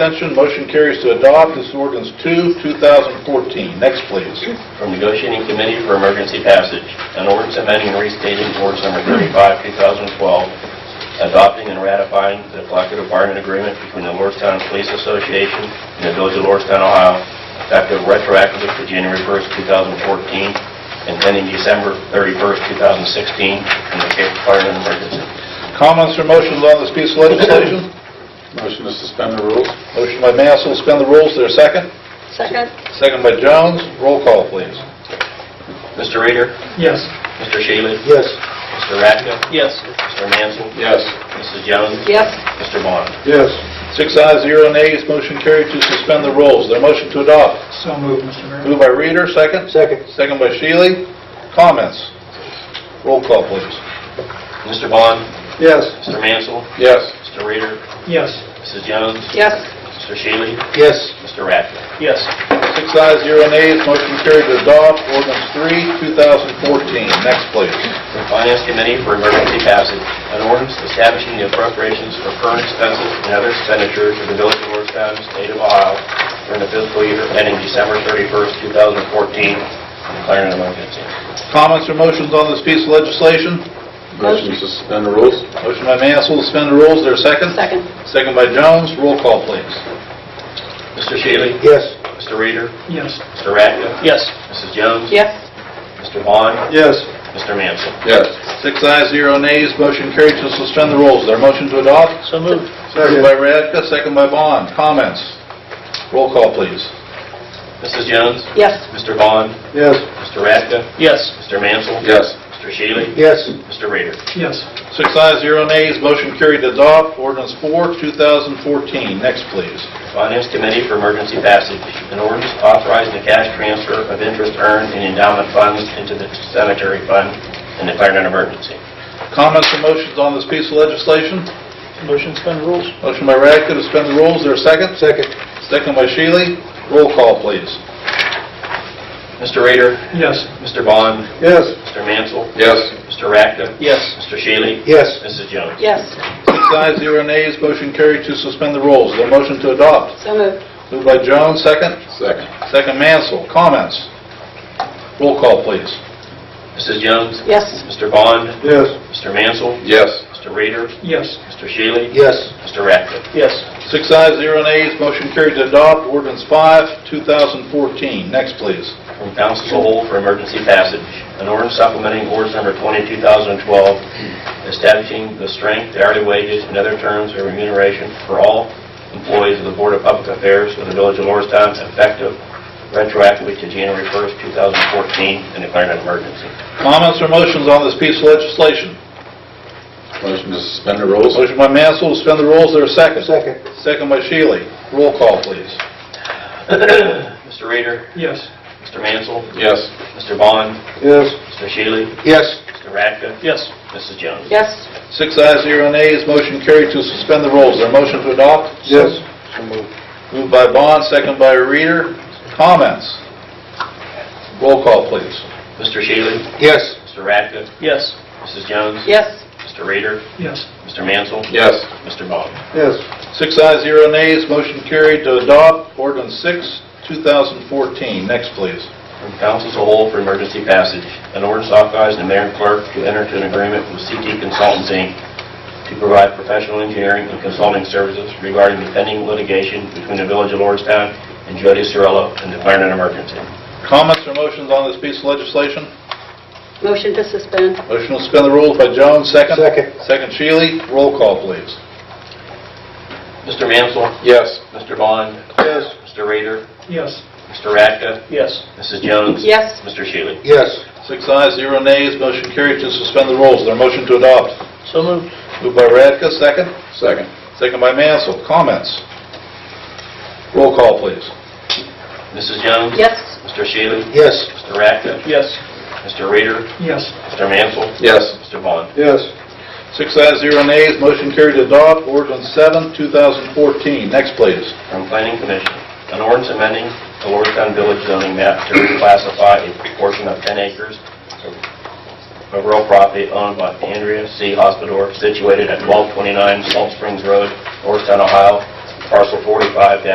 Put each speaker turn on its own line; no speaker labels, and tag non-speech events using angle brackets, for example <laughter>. Abstention, motion carries to adopt. This is ordinance 2, 2014. Next, please.
from Negotiating Committee for Emergency Passage, an ordinance amending and restating ordinance number 35, 2012, adopting and ratifying the collective bargaining agreement between the Lordstown Police Association and the Village of Lordstown, Ohio, effective retroactively to January 1st, 2014, and ending December 31st, 2016, and declaring an emergency.
Comments or motions on this piece of legislation?
Motion to suspend the rules?
Motion by Mansell, to suspend the rules. Is there a second?
Second?
Second by Jones. Roll call, please.
Mr. Reader?
Yes.
Mr. Shealy?
Yes.
Mr. Radka?
Yes.
Mr. Mansell?
Yes.
Mrs. Jones?
Yes.
Mr. Vaughn?
Yes.
Six ayes, zero nays, motion carried to suspend the rules. Is there a motion to adopt?
So moved, Mr. Mayor.
Moved by Reader, second?
Second.
Second by Shealy. Comments? Roll call, please.
Mr. Vaughn?
Yes.
Mr. Mansell?
Yes.
Mr. Reader?
Yes.
Mrs. Jones?
Yes.
Mr. Shealy?
Yes.
Mr. Radford.
Yes.
Six ayes, zero nays, motion carried to adopt ordinance 3, 2014. Next, please.
The Finance Committee for emergency passage, an ordinance establishing the appropriations for current expenses and other expenditures of the Village of Lordstown, State of Ohio during the fiscal year ending December 31st, 2014, and declaring an emergency.
Comments or motions on this piece of legislation?
Motion to suspend the rules?
Motion by Mansell, to suspend the rules. Is there a second?
Second?
Second by Jones. Roll call, please.
Mr. Shealy?
Yes.
Mr. Reader?
Yes.
Mr. Radford.
Yes.
Mrs. Jones?
Yes.
Mr. Vaughn?
Yes.
Mr. Mansell?
Yes.
Six ayes, zero nays, motion carried to suspend the rules. Is there a motion to adopt?
So moved.
Second by Radka, second by Bond. Comments? Roll call, please.
Mrs. Jones?
Yes.
Mr. Vaughn?
Yes.
Mr. Radford.
Yes.
Mr. Mansell?
Yes.
Mr. Shealy?
Yes.
Mr. Reader?
Yes.
Six ayes, zero nays, motion carried to adopt. Ordinance 4, 2014. Next, please.
Finance Committee for Emergency Passage, an ordinance authorizing the cash transfer of interest earned in endowment funds into the cemetery fund and declaring an emergency.
Comments or motions on this piece of legislation?
Motion suspend rules?
Motion by Radka to suspend the rules. Is there a second?
Second.
Second by Shealy. Roll call, please.
Mr. Rader?
Yes.
Mr. Bond?
Yes.
Mr. Mansell?
Yes.
Mr. Radka?
Yes.
Mr. Shealy?
Yes.
Mrs. Jones?
Yes.
Six ayes, zero nays, motion carried to suspend the rules. Is there a motion to adopt?
So moved.
Moved by Jones, second.
Second.
Second Mansell. Comments? Roll call, please.
Mrs. Jones?
Yes.
Mr. Bond?
Yes.
Mr. Mansell?
Yes.
Mr. Rader?
Yes.
Mr. Shealy?
Yes.
Mr. Radka?
Yes.
Six ayes, zero nays, motion carried to adopt ordinance 5, 2014. Next, please.
From Council as a whole for emergency passage, an ordinance supplementing ordinance number 22,012, establishing the strength, hourly wages, and other terms of remuneration for all employees of the Board of Public Affairs of the Village of Lordstown, effective retroactively to January 1st, 2014, and declaring an emergency. <clears throat>
Comments or motions on this piece of legislation?
Motion to suspend the rules?
Motion by Mansell, to suspend the rules, there a second?
Second.
Second by Shealy. Roll call, please.
Mr. Reader,
Yes.
Mr. Mansell,
Yes.
Mr. Vaughn,
Yes.
Mr. Shealy,
Yes.
Mr. Radka,
Yes.
Mrs. Jones.
Yes.
Six ayes, zero nays, motion carried to suspend the rules. Is there a motion to adopt?
Yes.
Moved by Bond, second by Reader. Comments? Roll call, please.
Mr. Shealy,
Yes.
Mr. Radka,
Yes.
Mrs. Jones,
Yes.
Mr. Reader,
Yes.
Mr. Mansell,
Yes.
Mr. Vaughn.
Yes.
Six ayes, zero nays, motion carried to adopt ordinance 6, 2014. Next, please.
From council as a whole for emergency passage, an ordinance authorizing the mayor and clerk to enter into an agreement with CT Consultants, Inc. to provide professional engineering and consulting services regarding the pending litigation between the Village of Lordstown and Jody Cirillo and declaring an emergency.
Comments or motions on this piece of legislation?
Motion to suspend.
Motion to suspend the rules by Jones, second.
Second.
Second Shealy. Roll call, please.
Mr. Mansell,
Yes.
Mr. Bond,
Yes.
Mr. Rader,
Yes.
Mr. Radka,
Yes.
Mrs. Jones.
Yes.
Mr. Shealy.
Yes.
Six ayes, zero nays, motion carried to suspend the rules. Is there a motion to adopt?
So moved.
Moved by Radka, second.
Second.
Second by Mansell. Comments? Roll call, please.
Mrs. Jones.
Yes.
Mr. Shealy.
Yes.
Mr. Radka,
Yes.
Mr. Rader,
Yes.
Mr. Mansell,
Yes.
Mr. Vaughn.
Yes.
Six ayes, zero nays, motion carried to adopt ordinance 7, 2014. Next, please.
from Planning Commission, an ordinance amending the Lordstown Village zoning map to reclassify a portion of 10 acres of real property owned by Andrea C. Hospodor situated at 1229 Salt Springs Road, Lordstown, Ohio, parcel 45